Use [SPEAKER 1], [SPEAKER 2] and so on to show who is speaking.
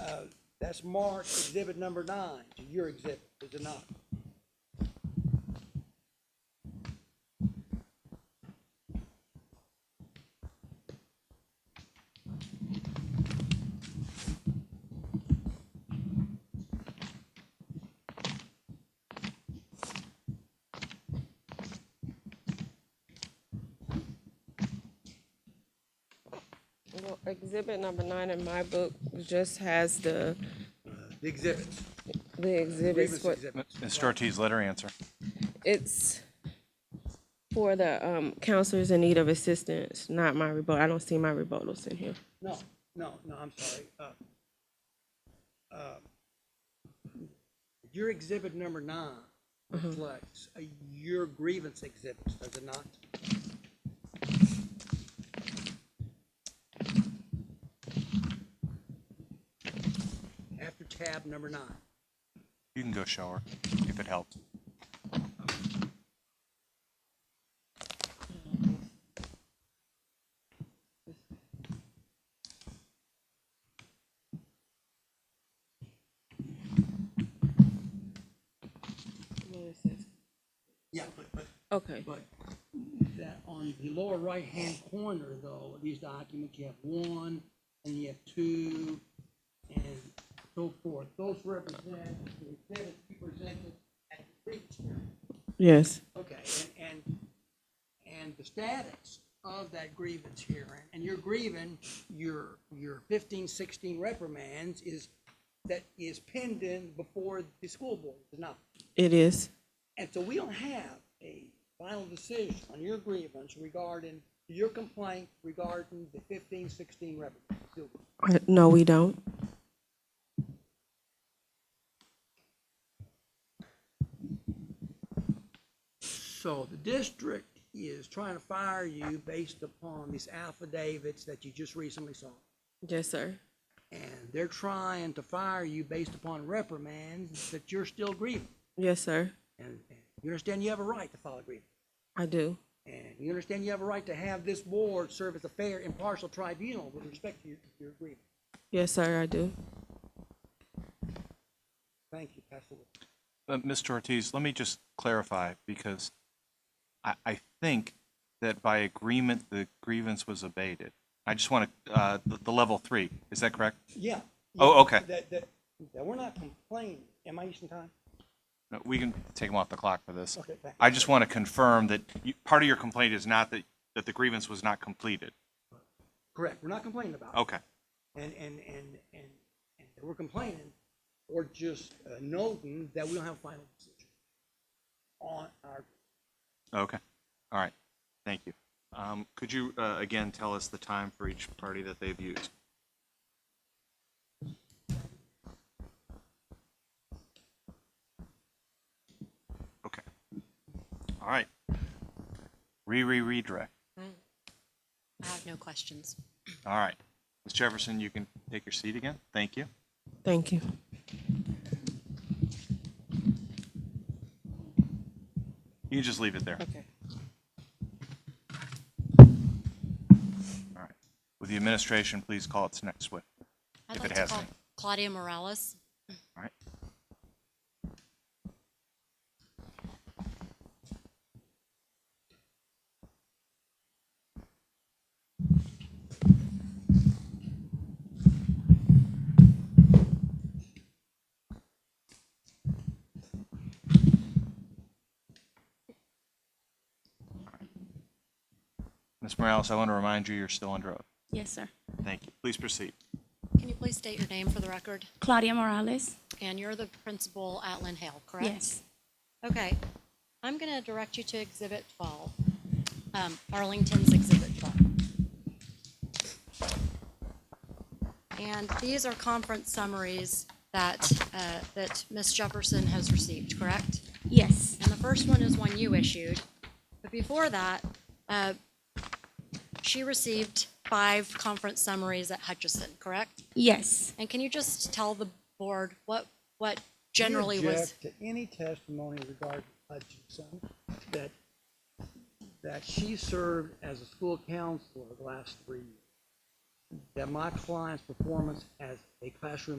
[SPEAKER 1] uh, that's marked exhibit number nine, to your exhibit, is it not?
[SPEAKER 2] Well, exhibit number nine in my book just has the,
[SPEAKER 1] The exhibits,
[SPEAKER 2] the
[SPEAKER 1] grievance
[SPEAKER 2] exhibits. for-
[SPEAKER 1] exhibits.
[SPEAKER 3] Mr. Ortiz, let her answer.
[SPEAKER 2] It's for the, um, counselors in need of assistance, not my rebuttal. I don't see my rebuttals in here.
[SPEAKER 1] No, no, no, I'm sorry. Uh, uh, Your exhibit number nine reflects uh, your grievance exhibits, does it not? After tab number nine.
[SPEAKER 3] You can go show her if it helps.
[SPEAKER 1] Yeah, but, but
[SPEAKER 2] Okay,
[SPEAKER 1] But that on the lower right-hand corner though, of these documents, you have one and you have two and so forth. Those represent the exhibits you presented at the previous hearing.
[SPEAKER 2] yes.
[SPEAKER 1] Okay, and, and, and the status of that grievance hearing, and you're grieving your, your fifteen, sixteen reprimands is, that is pending before the school board, is it not?
[SPEAKER 2] It is,
[SPEAKER 1] And so we don't have a final decision on your grievance regarding your complaint regarding the fifteen sixteen revenue. Do we?
[SPEAKER 2] Uh, no, we don't.
[SPEAKER 1] So the district is trying to fire you based upon these affidavits that you just recently saw.
[SPEAKER 2] Yes, sir.
[SPEAKER 1] And they're trying to fire you based upon reprimands that you're still grieving.
[SPEAKER 2] Yes, sir.
[SPEAKER 1] And and you understand you have a right to file a grievance.
[SPEAKER 2] I do.
[SPEAKER 1] And you understand you have a right to have this board serve as a fair, impartial tribunal with respect to your, your grievance.
[SPEAKER 2] Yes, sir, I do.
[SPEAKER 1] Thank you, Pastor Wood.
[SPEAKER 3] But Mr. Ortiz, let me just clarify, because I, I think that by agreement, the grievance was abated. I just want to, uh, the, the level three, is that correct?
[SPEAKER 1] Yeah.
[SPEAKER 3] Oh,
[SPEAKER 1] yeah,
[SPEAKER 3] okay.
[SPEAKER 1] That, that, that we're not complaining. Am I using time?
[SPEAKER 3] No, We can take him off the clock for this.
[SPEAKER 1] Okay, thank you.
[SPEAKER 3] I just want to confirm that you, part of your complaint is not that, that the grievance was not completed.
[SPEAKER 1] Correct. We're not complaining about it.
[SPEAKER 3] Okay.
[SPEAKER 1] And, and, and, and, and that we're complaining or just uh, noting that we don't have a final decision on our,
[SPEAKER 3] Okay, all right, thank you. Um, Could you, uh, again, tell us the time for each party that they've used? Okay, all right. Re-re-redirect,
[SPEAKER 4] I have no questions.
[SPEAKER 3] all right. Ms. Jefferson, you can take your seat again, thank you.
[SPEAKER 2] Thank you.
[SPEAKER 3] You can just leave it there.
[SPEAKER 2] Okay.
[SPEAKER 3] All right. Would the administration please call its next witness?
[SPEAKER 4] I'd
[SPEAKER 3] If
[SPEAKER 4] like
[SPEAKER 3] it
[SPEAKER 4] to
[SPEAKER 3] has
[SPEAKER 4] call
[SPEAKER 3] any.
[SPEAKER 4] Claudia Morales.
[SPEAKER 3] All right. Ms. Morales, I want to remind you, you're still under oath.
[SPEAKER 5] Yes, sir.
[SPEAKER 3] Thank you. Please proceed.
[SPEAKER 4] Can you please state your name for the record?
[SPEAKER 5] Claudia Morales?
[SPEAKER 4] And you're the principal at Lynn Hale, correct?
[SPEAKER 5] Yes.
[SPEAKER 4] Okay. I'm going to direct you to Exhibit 12, um, Arlington's Exhibit 12. And these are conference summaries that, uh, that Ms. Jefferson has received, correct?
[SPEAKER 5] Yes.
[SPEAKER 4] And the first one is one you issued. But before that, uh, she received five conference summaries at Hutchinson, correct?
[SPEAKER 5] Yes.
[SPEAKER 4] And can you just tell the board what, what
[SPEAKER 1] We
[SPEAKER 4] generally was?
[SPEAKER 1] object To any testimony regarding Hutchinson, that, that she served as a school counselor the last three years. That my client's performance as a classroom